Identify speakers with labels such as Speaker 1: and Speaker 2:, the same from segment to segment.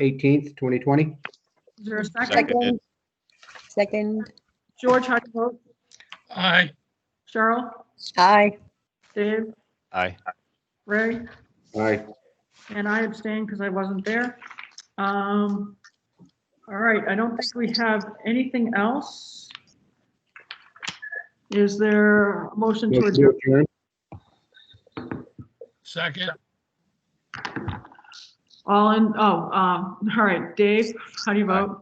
Speaker 1: 18th, 2020.
Speaker 2: Is there a second?
Speaker 3: Seconded.
Speaker 4: Second,
Speaker 2: George, how do you vote?
Speaker 5: Aye.
Speaker 2: Cheryl?
Speaker 4: aye.
Speaker 2: Dave?
Speaker 3: Aye.
Speaker 2: Ray?
Speaker 1: Aye.
Speaker 2: And I abstain because I wasn't there. Um, All right, I don't think we have anything else. Is there a motion to
Speaker 1: Motion
Speaker 2: adjourn?
Speaker 1: to adjourn.
Speaker 5: Second.
Speaker 2: All in, oh, um, all right, Dave, how do you vote?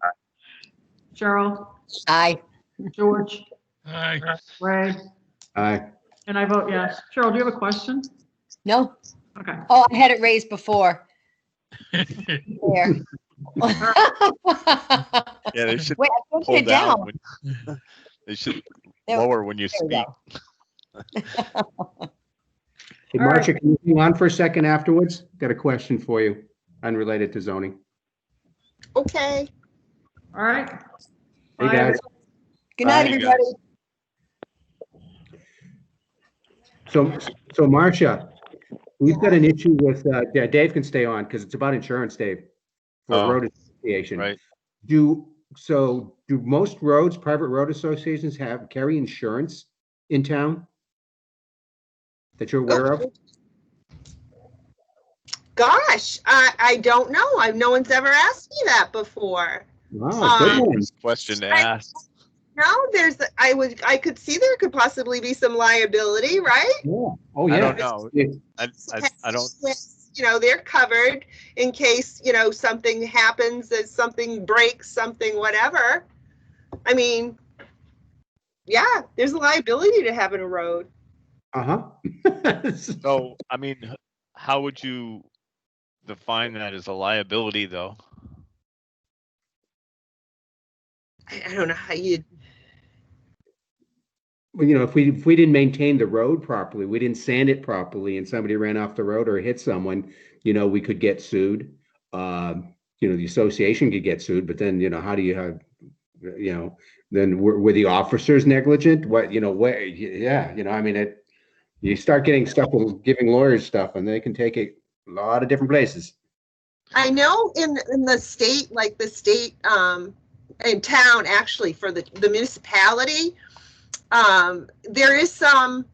Speaker 2: Cheryl,
Speaker 4: Aye.
Speaker 2: George,
Speaker 5: Aye.
Speaker 2: Ray,
Speaker 1: Aye.
Speaker 2: and I vote yes. Cheryl, do you have a question?
Speaker 4: No,
Speaker 2: Okay,
Speaker 4: oh, I had it raised before. There. Wait, I
Speaker 3: Yeah, they should
Speaker 4: put
Speaker 3: pull
Speaker 4: it
Speaker 3: down.
Speaker 4: down.
Speaker 3: when- They should
Speaker 4: There-
Speaker 3: lower when you
Speaker 4: there we
Speaker 3: speak.
Speaker 4: go.
Speaker 1: Hey,
Speaker 2: All right.
Speaker 1: Marcia, can you hang on for a second afterwards? Got a question for you, unrelated to zoning.
Speaker 6: Okay.
Speaker 2: all right.
Speaker 1: Hey,
Speaker 2: Bye,
Speaker 1: guys.
Speaker 4: Good night,
Speaker 3: Bye, guys.
Speaker 4: everybody.
Speaker 1: So, so Marcia, we've got an issue with, uh, Da- Dave can stay on because it's about insurance, Dave. For
Speaker 3: Oh,
Speaker 1: road association.
Speaker 3: Right.
Speaker 1: Do, so do most roads, private road associations have, carry insurance in town? That you're aware
Speaker 2: Oh.
Speaker 1: of?
Speaker 6: Gosh, I, I don't know. I, no one's ever asked me that before.
Speaker 1: Wow, good
Speaker 6: Um,
Speaker 1: one.
Speaker 3: Question to
Speaker 6: I-
Speaker 3: ask.
Speaker 6: No, there's, I would, I could see there could possibly be some liability, right?
Speaker 1: Yeah. Oh,
Speaker 3: I
Speaker 1: yeah.
Speaker 3: don't know.
Speaker 1: Yeah.
Speaker 3: I, I, I don't,
Speaker 6: You know, they're covered in case, you know, something happens, that something breaks, something, whatever. I mean, yeah, there's a liability to having a road.
Speaker 1: Uh-huh.
Speaker 3: so, I mean, h- how would you define that as a liability though?
Speaker 6: I, I don't know how you,
Speaker 1: Well, you know, if we, if we didn't maintain the road properly, we didn't sand it properly and somebody ran off the road or hit someone, you know, we could get sued. Um, you know, the association could get sued, but then, you know, how do you have, you know, then were, were the officers negligent? What, you know, where, y- yeah, you know, I mean, it, you start getting stuff, with giving lawyers stuff and they can take it a lot of different places.
Speaker 6: I know in, in the state, like the state, um, in town, actually, for the, the municipality, um, there is some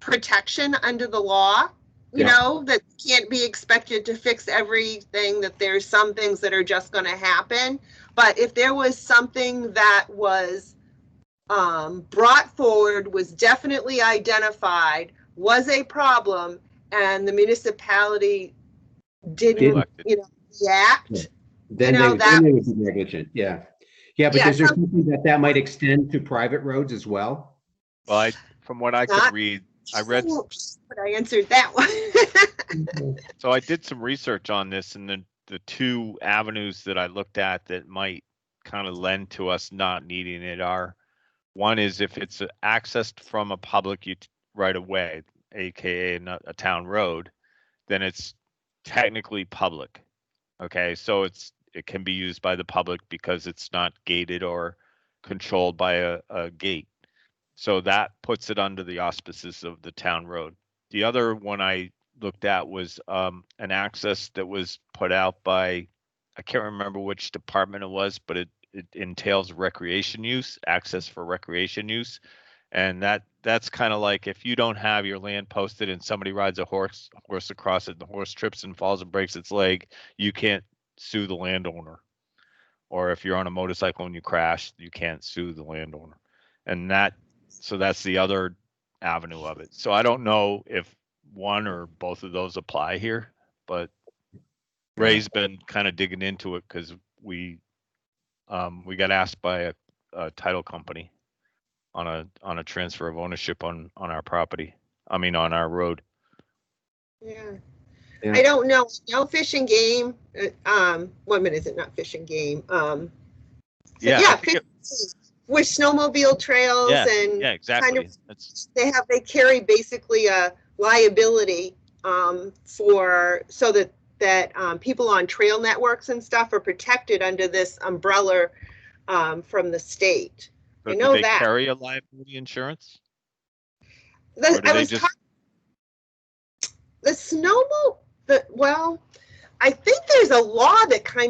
Speaker 6: protection under the law, you
Speaker 1: Yeah.
Speaker 6: know, that can't be expected to fix everything, that there's some things that are just gonna happen. But if there was something that was, um, brought forward, was definitely identified, was a problem, and the municipality didn't,
Speaker 3: Neglected.
Speaker 6: you know, react,
Speaker 1: Yeah. Then
Speaker 6: know,
Speaker 1: they, then
Speaker 6: that-
Speaker 1: they would be negligent, yeah. Yeah, but
Speaker 6: Yeah,
Speaker 1: is there something that that might extend to private roads as well?
Speaker 3: Well, I, from what I could
Speaker 6: Not-
Speaker 3: read, I read-
Speaker 6: But I answered that one.
Speaker 3: so I did some research on this and the, the two avenues that I looked at that might kind of lend to us not needing it are one is if it's accessed from a public ut- right of way, AKA not a town road, then it's technically public. Okay, so it's, it can be used by the public because it's not gated or controlled by a, a gate. So that puts it under the auspices of the town road. The other one I looked at was um, an access that was put out by, I can't remember which department it was, but it, it entails recreation use, access for recreation use. And that, that's kind of like if you don't have your land posted and somebody rides a horse, horse across it, and the horse trips and falls and breaks its leg, you can't sue the landowner. Or if you're on a motorcycle and you crash, you can't sue the landowner. And that, so that's the other avenue of it. So I don't know if one or both of those apply here, but Ray's been kind of digging into it because we, um, we got asked by a, a title company on a, on a transfer of ownership on, on our property, I mean, on our road.
Speaker 6: Yeah.
Speaker 1: Yeah.
Speaker 6: I don't know, no fish and game, uh, um, what minute is it, not fish and game, um,
Speaker 3: Yeah, I
Speaker 6: yeah,
Speaker 3: think it-
Speaker 6: fish- with snowmobile trails and
Speaker 3: yeah, exactly. That's,
Speaker 6: they have, they carry basically a liability, um, for, so that, that, um, people on trail networks and stuff are protected under this umbrella, um, from the state.
Speaker 3: but
Speaker 6: know
Speaker 3: do they
Speaker 6: that.
Speaker 3: carry a liability insurance?
Speaker 6: The-
Speaker 3: Or do
Speaker 6: I
Speaker 3: they
Speaker 6: was
Speaker 3: just-
Speaker 6: talk- the snowmobile, the, well, I think there's a law that kind